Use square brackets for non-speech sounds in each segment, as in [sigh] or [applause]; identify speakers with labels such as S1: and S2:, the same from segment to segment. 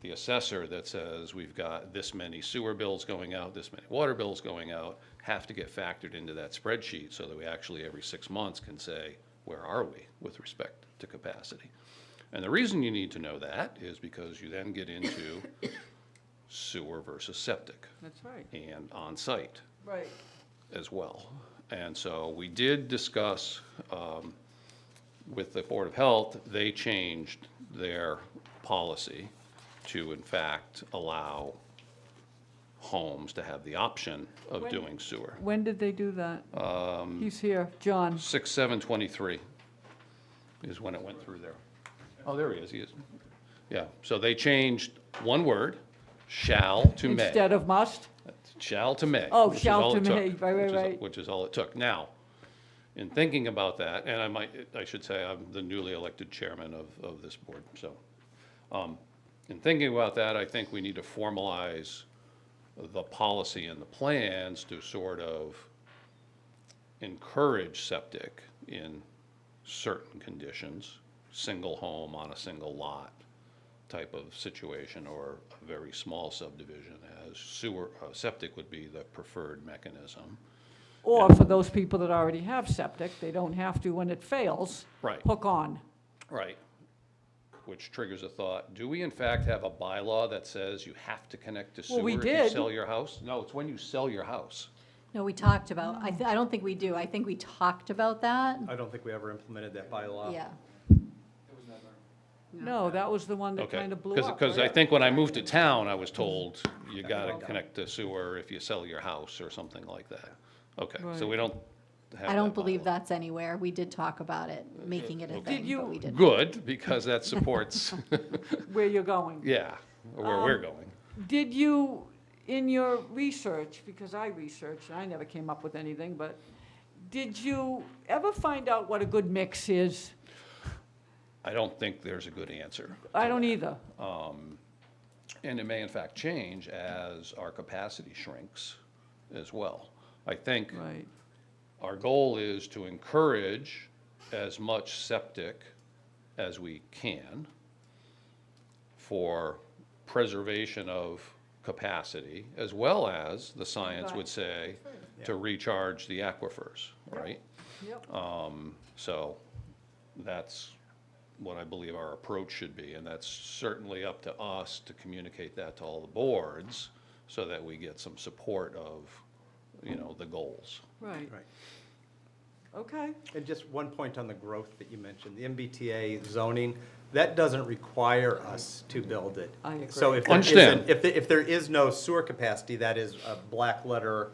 S1: the assessor that says, we've got this many sewer bills going out, this many water bills going out, have to get factored into that spreadsheet so that we actually every six months can say, where are we with respect to capacity? And the reason you need to know that is because you then get into [coughs] sewer versus septic
S2: That's right.
S1: and on-site
S2: Right.
S1: as well. And so we did discuss um, with the Board of Health, they changed their policy to in fact allow homes to have the option of
S2: When-
S1: doing sewer.
S2: When did they do that?
S1: Um,
S2: He's here, John.
S1: 6723 is when it went through there. Oh, there he is, he is. Yeah, so they changed one word, shall to may.
S2: Instead of must?
S1: Shall to may.
S2: Oh,
S1: which is
S2: shall
S1: all
S2: to
S1: it took,
S2: may, right, right,
S1: which is-
S2: right.
S1: Which is all it took. Now, in thinking about that, and I might, I should say I'm the newly elected chairman of, of this board, so. um, In thinking about that, I think we need to formalize the policy and the plans to sort of encourage septic in certain conditions, single home on a single lot type of situation or a very small subdivision as sewer, uh, septic would be the preferred mechanism.
S2: Or for those people that already have septic, they don't have to when it fails.
S1: Right.
S2: Hook on.
S1: Right. Which triggers a thought, do we in fact have a bylaw that says you have to connect to
S2: Well,
S1: sewer
S2: we
S1: if you
S2: did.
S1: sell your house? No, it's when you sell your house.
S3: No, we talked about, I, th- I don't think we do. I think we talked about that.
S4: I don't think we ever implemented that bylaw.
S3: Yeah.
S2: No, that was the one that
S1: Okay,
S2: kind of blew
S1: because,
S2: up.
S1: I
S2: right?
S1: think when I moved to town, I was told you gotta connect to sewer if you sell your house or something like that. Okay, so we don't have
S3: I don't believe
S1: bylaw.
S3: that's anywhere. We did talk about it, making it a thing,
S2: you-
S3: but we didn't.
S1: Good, because that
S2: [laughs]
S1: supports,
S2: Where you're going.
S1: yeah, where
S2: Um,
S1: we're going.
S2: Did you, in your research, because I researched, and I never came up with anything, but did you ever find out what a good mix is?
S1: I don't think there's a good answer.
S2: I don't either.
S1: And it may in fact change as our capacity shrinks as well. I think
S2: Right.
S1: our goal is to encourage as much septic as we can for preservation of capacity, as well as, the science would say, to recharge the aquifers, right?
S2: Yep.
S1: Uh, So that's what I believe our approach should be, and that's certainly up to us to communicate that to all the boards so that we get some support of, you know, the goals.
S2: Right.
S4: Right.
S2: Okay.
S4: And just one point on the growth that you mentioned, the MBTA zoning, that doesn't require us to build it.
S2: I agree.
S4: So if there
S1: Understand.
S4: isn't, if, the- if there is no sewer capacity, that is a black letter.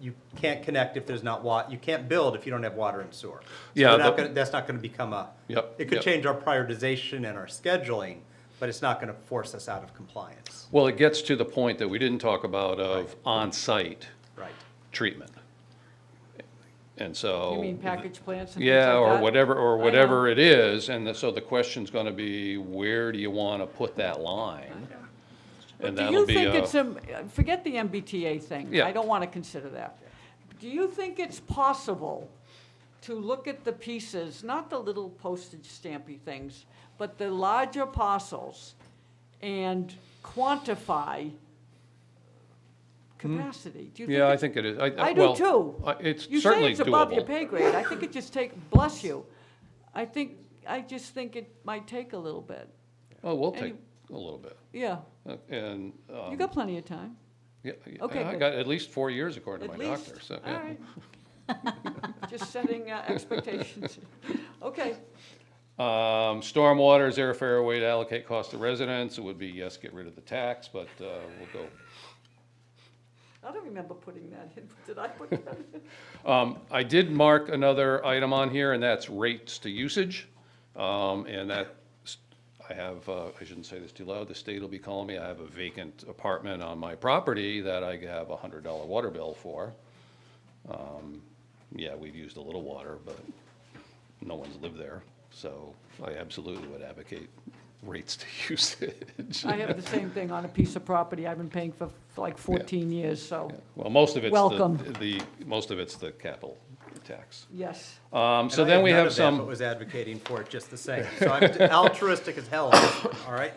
S4: You can't connect if there's not wa, you can't build if you don't have water and sewer. So
S1: Yeah,
S4: we're not
S1: the-
S4: gonna- That's not gonna become a.
S1: Yep,
S4: It could
S1: yep.
S4: change our prioritization and our scheduling, but it's not gonna force us out of compliance.
S1: Well, it gets to the point that we didn't talk about of on-site
S4: Right.
S1: treatment. And so.
S2: You mean package plants and things like that?
S1: Oh, Yeah, or whatever,
S2: I
S1: or
S2: know.
S1: whatever it is, and the- so the question's gonna be, where do you wanna put that line? And
S2: Do
S1: that'll
S2: you
S1: be
S2: think
S1: a-
S2: it's, um, forget the MBTA thing.
S1: Yeah.
S2: I don't want to consider that. Do you think it's possible to look at the pieces, not the little postage stampy things, but the larger parcels and quantify capacity? Do you think
S1: Hmm. Yeah, I
S2: it's-
S1: think it is.
S2: I do
S1: well,
S2: too.
S1: I- It's
S2: You say
S1: certainly
S2: it's above your
S1: doable.
S2: pay grade. I think it just take, bless you. I think, I just think it might take a little bit.
S1: Oh, we'll
S2: and
S1: take
S2: you-
S1: a little bit.
S2: Yeah,
S1: Uh, And,
S2: you
S1: um,
S2: got plenty of time.
S1: yeah, yeah,
S2: okay,
S1: I
S2: good.
S1: got at least four years according to
S2: At
S1: my
S2: least.
S1: doctor, so.
S2: All
S1: yeah.
S2: right.
S1: [laughs]
S2: Just setting uh, expectations. Okay,
S1: Um, stormwater, is there a fair way to allocate cost to residents? It would be, yes, get rid of the tax, but, uh, we'll go
S2: I don't remember putting that in, did I put that in?
S1: Um, I did mark another item on here, and that's rates to usage. Um, and that, I have, uh, I shouldn't say this too loud, the state will be calling me, I have a vacant apartment on my property that I have a hundred dollar water bill for. Um, Yeah, we've used a little water, but no one's lived there, so I absolutely would advocate rates to [laughs] usage.
S2: I have the same thing on a piece of property I've been paying for for like 14 years, so,
S1: Well, most of it's
S2: Welcome.
S1: the, the, most of it's the capital tax.
S2: yes.
S1: Um, so
S4: And I
S1: then we
S4: none
S1: have
S4: of that,
S1: some.
S4: [laughs] but Was advocating for it just the same. So I'm altruistic as hell, all right?